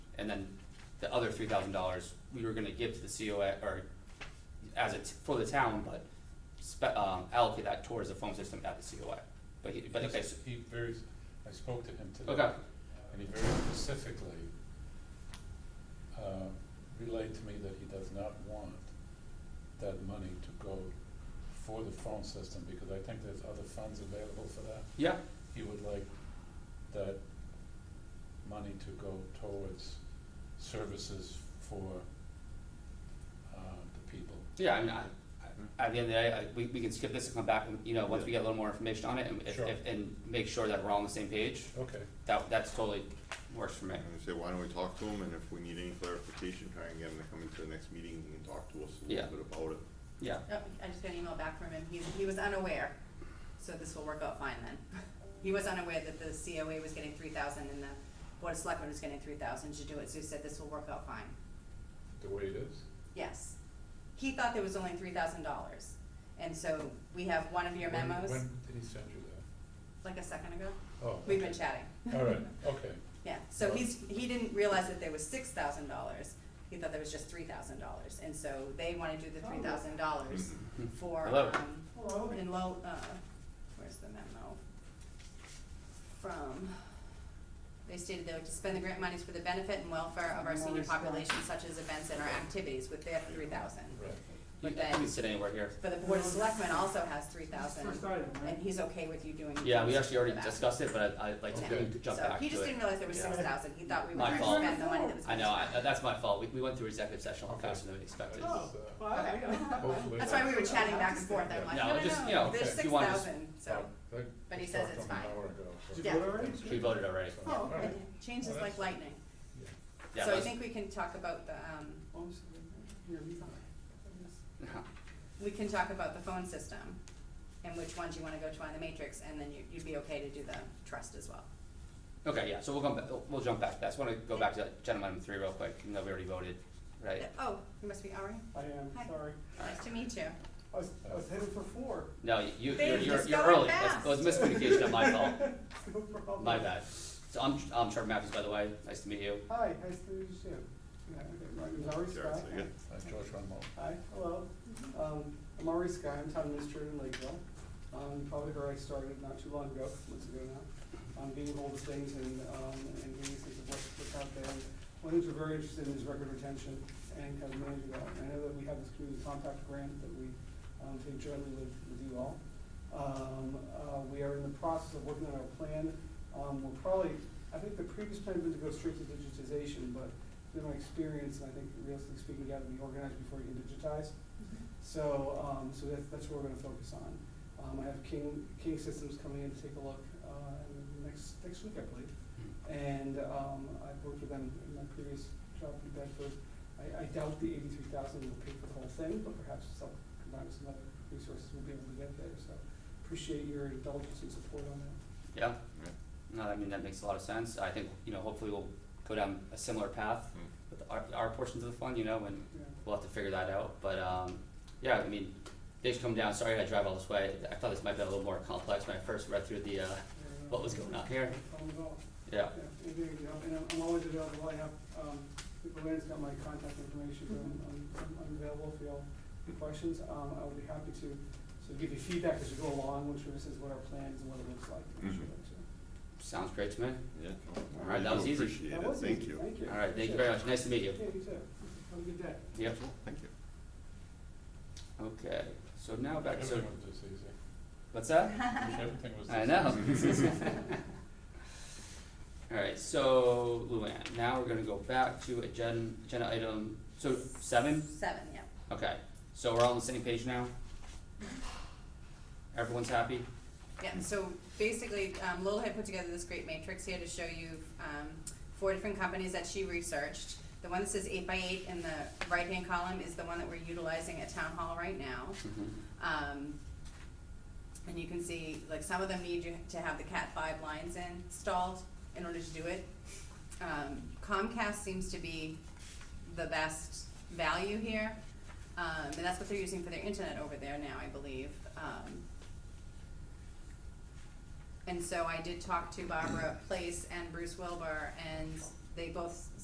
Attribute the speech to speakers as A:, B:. A: and then the other three thousand dollars we were gonna give to the COA, or as it's for the town, but spe- um, allocate that towards the phone system at the COA. But he, but
B: He-
A: okay, so-
B: He very, I spoke to him today.
A: okay,
B: And he very specifically uh, relayed to me that he does not want that money to go for the phone system, because I think there's other funds available for that.
A: yeah,
B: He would like that money to go towards services for uh, the people.
A: yeah, I mean, I, I- at the end of the day, I, we, we can skip this and come back, and, you know, once we get a little more information on it, and if,
B: Sure.
A: if, and make sure that we're all on the same page,
B: Okay.
A: that, that's totally works for me.
C: And I say, why don't we talk to them, and if we need any clarification, try and get them to come into the next meeting and talk to us a
A: Yeah.
C: little bit about it.
A: Yeah,
D: Oh, I just got an email back from him, he, he was unaware, so this will work out fine then. He was unaware that the COA was getting three thousand and the Board of Selectmen was getting three thousand to do it, so he said this will work out fine,
B: The way it is?
D: yes. He thought there was only three thousand dollars, and so we have one of your
B: When-
D: memos,
B: When did he send you that?
D: like a second ago,
B: Oh.
D: we've been
B: okay.
D: chatting.
B: All right, okay.
D: Yeah, so he's, he didn't realize that there was six thousand dollars, he thought there was just three thousand dollars, and so they wanna do the three thousand dollars for,
A: Hello.
D: um, in low, uh, where's the memo? From, they stated they would to spend the grant monies for the benefit and welfare of our senior population, such as events and our activities with their three thousand.
B: Right.
A: you
D: But then-
A: can sit anywhere here.
D: But the board of selectmen also has three thousand,
E: First item, right?
D: and he's okay with you doing.
A: Yeah, we
D: those
A: actually already
D: for that.
A: discussed it, but I, I like to we
B: Okay.
A: could jump
D: So
A: back to
D: he just
A: it.
D: didn't realize there was
B: Yeah.
D: six thousand, he thought we were
A: My
D: trying to
A: fault.
D: spend the money that was.
A: I know, I,
D: spent.
A: that's my fault, we, we went through executive session a lot
B: Okay.
A: faster than we expected.
B: Oh.
E: Well, I- I-
B: Hopefully
D: That's why we were chatting back and forth, I'm like,
A: No,
D: no, no,
A: just, you
D: no,
A: know,
D: there's
B: if
D: six
A: you want to-
D: thousand, so, but he says it's fine.
E: Did
D: Yeah.
E: you vote already?
A: We voted already,
B: Oh, all right.
D: it changes
B: Well,
D: like
B: that's-
D: lightning.
A: yeah,
D: So I
A: let's-
D: think we can talk about the, um,
E: Oh, so you're- you're-
D: we can talk about the phone system and which ones you wanna go to on the matrix, and then you, you'd be okay to do the trust as well.
A: Okay, yeah, so we'll come, back. we'll jump back, that's, wanna go back to agenda item three real quick, even though we already voted, right?
D: Oh, you must be Ari,
E: I am,
D: Hi.
E: sorry.
D: nice to meet you.
E: I was, I was headed for four.
A: No, you,
D: They
A: you're,
D: were
A: you're,
D: just
A: you're
D: going
A: early, that's, it
D: fast.
A: was miscommunication on my fault,
E: No problem.
A: my bad. So I'm, I'm Trevor Matthews, by the way, nice to meet you.
E: Hi, nice to meet you. Yeah, okay, My name is Ari
C: Jared,
E: Scott.
C: say again.
B: George Rumble.
E: Hi, hello. Um, I'm Ari Sky, I'm town administrator in Lakeville. Um, you probably heard I started not too long ago, months ago now, on getting hold of things and, um, and getting a sense of what's, what's out there. One of the things we're very interested in is record retention and kind of managing that. And I know that we have this community compact grant that we, um, take jointly with, with you all. Um, uh, we are in the process of working on our plan. Um, we're probably, I think the previous plan was to go straight to digitization, but through my experience, and I think realistically speaking, you gotta be organized before you can digitize. So, um, so that's, that's what we're gonna focus on. Um, I have King, King Systems coming in to take a look, uh, in the next, next week, I believe. And, um, I've worked with them in my previous job in Bedford. I, I doubt the eighty-three thousand will pay for the whole thing, but perhaps some, combined with some other resources, we'll be able to get there, so appreciate your indulgence and support on that.
A: Yeah,
C: Yeah.
A: no, I mean, that makes a lot of sense, I think, you know, hopefully we'll go down a similar path
C: Hmm.
A: with our, our portions of the fund, you know, and
E: Yeah.
A: we'll have to figure that out, but, um, yeah, I mean, things come down, sorry I had to drive all this way, I thought this might be a little more complex when I first read through the, uh, what was going on here,
E: Problem at all.
A: yeah.
E: Yeah, anything, you know, and I'm- I'm always available, I have, um, Luann's got my contact information, but I'm, I'm, I'm available if you all have questions, um, I would be happy to, to give you feedback as we go along, which is what our plans and what it looks like. and
C: Mhm.
E: so-
A: Sounds great to me.
C: Yeah.
A: All right, that was easy.
C: Appreciate
E: That
C: it,
E: was
C: thank
E: easy.
C: you.
E: Thank you.
A: All right, thank you very much. Nice to meet you.
E: Yeah, you too. Have a good day.
A: Yep.
C: Thank you.
A: Okay. So now back to
B: Everything was this easy.
A: what's that?
B: Everything was this
A: I know.
B: easy.
A: All right. So Luann, now we're gonna go back to agenda, agenda item. So seven.
D: Seven, yeah.
A: Okay. So we're all on the same page now. Everyone's happy.
D: Yeah, so basically, um, Lowell had put together this great matrix here to show you, um, four different companies that she researched. The one that says eight by eight in the right-hand column is the one that we're utilizing at town hall right now. Um, and you can see, like, some of them need you to have the Cat five lines installed in order to do it. Um, Comcast seems to be the best value here, um, and that's what they're using for their internet over there now, I believe. Um, and so I did talk to Barbara Place and Bruce Wilbur, and they both